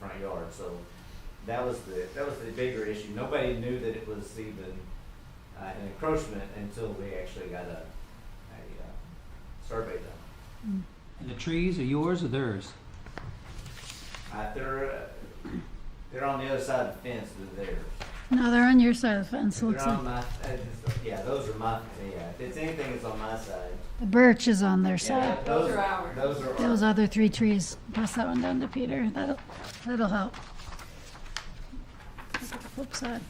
front yard, so that was the, that was the bigger issue. Nobody knew that it was even, uh, an encroachment until we actually got a, a, uh, survey done. And the trees are yours or theirs? Uh, they're, uh, they're on the other side of the fence than theirs. No, they're on your side of the fence, looks They're on like. my, uh, it's- yeah, those are my, yeah, if it's anything, it's on my side. The birch is on their Yeah, side. that- Those are ours. Those are Those ours. other three trees, pass that one down to Peter, that'll, that'll help. Look at the Flip side.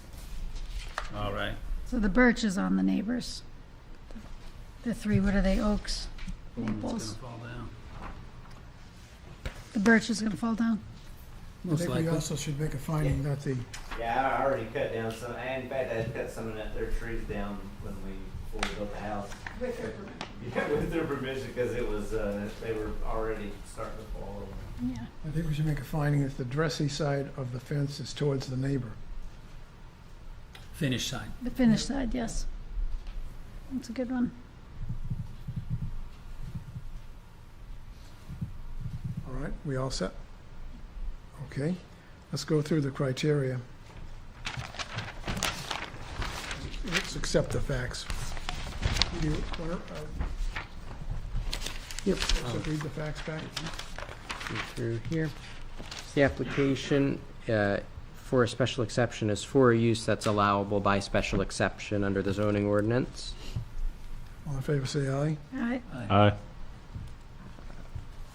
All right. So the birch is on the neighbors. The three, what are they, oaks, It's maples? gonna fall down. The birch is gonna fall down? I Most think we likely. also should make a finding that the, Yeah, I already cut down some, and in fact, I cut some of that- their trees down when we, before we built the house. With their permission. Yeah, with their permission, because it was, uh, they were already starting to fall over. Yeah. I think we should make a finding that the dressy side of the fence is towards the neighbor. Finish sign. The finished side, yes. That's a good one. All right, we all set? Okay, let's go through the criteria. Let's accept the facts. Do you wanna, uh, Yep. let's read the facts back? Go through here. The application uh, for a special exception is for a use that's allowable by special exception under the zoning ordinance. All in favor, say aye. All right, Aye. Aye.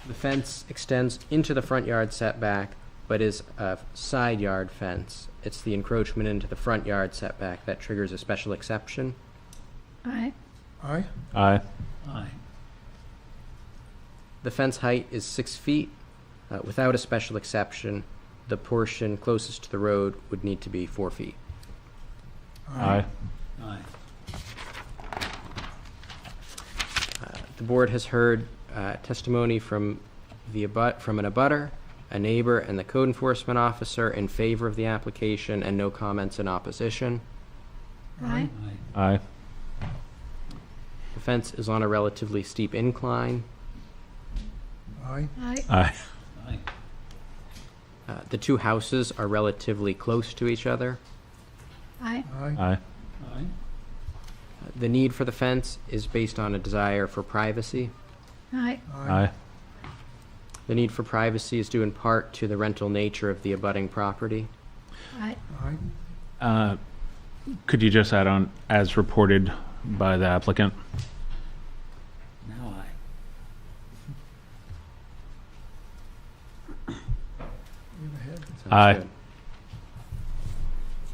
The fence extends into the front yard setback, but is a side yard fence. It's the encroachment into the front yard setback that triggers a special exception. all right, Aye? Aye. Aye. The fence height is six feet. Uh, Without a special exception, the portion closest to the road would need to be four feet. Aye. Aye. Uh, The board has heard uh, testimony from the abut, from an abutter, a neighbor, and the code enforcement officer in favor of the application, and no comments in opposition. all right. Aye. Aye. The fence is on a relatively steep incline. Aye? All right, Aye. Aye. Uh, The two houses are relatively close to each other. all right, Aye? Aye. Aye. Uh, The need for the fence is based on a desire for privacy. all right, Aye. The need for privacy is due in part to the rental nature of the abutting property. all right. Aye? Uh, Could you just add on, as reported by the applicant? Now aye. You have a head? Sounds Aye. good.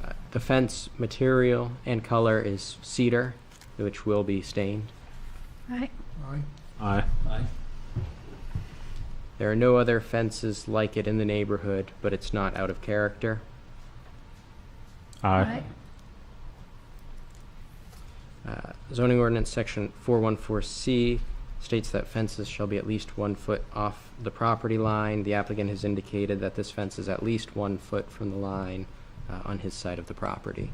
Uh, The fence material and color is cedar, which will be stained. All right, Aye? Aye. Aye. There are no other fences like it in the neighborhood, but it's not out of character. all Aye. right, Uh, Zoning ordinance section 414C states that fences shall be at least one foot off the property line. The applicant has indicated that this fence is at least one foot from the line uh, on his side of the property.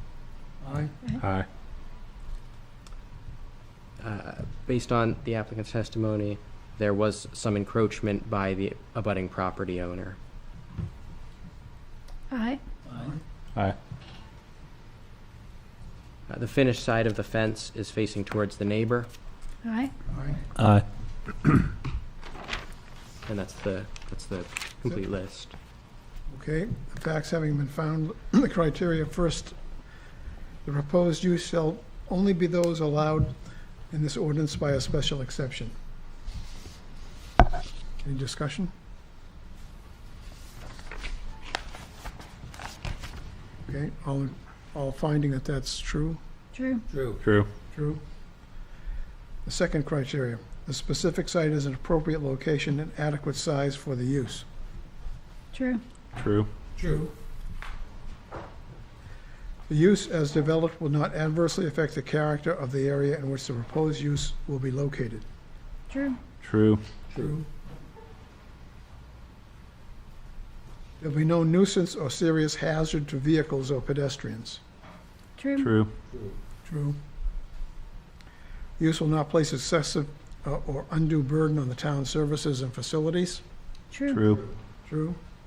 Aye? Aye. Uh, Based on the applicant's testimony, there was some encroachment by the abutting property owner. all right, Aye. Aye. Uh, The finished side of the fence is facing towards the neighbor, all right. Aye? Aye. and that's the, that's the complete list. Okay, the facts having been found, the criteria first, the proposed use shall only be those allowed in this ordinance by a special exception. Any discussion? Okay, all, all finding that that's true, True, True. True. true. The second criteria, the specific site is an appropriate location and adequate size for the use. true, True. True. The use as developed will not adversely affect the character of the area in which the proposed use will be located. true, True. True. There'll be no nuisance or serious hazard to vehicles or pedestrians. true, True. True. Use will not place excessive uh, or undue burden on the town's services and facilities. true, True. True.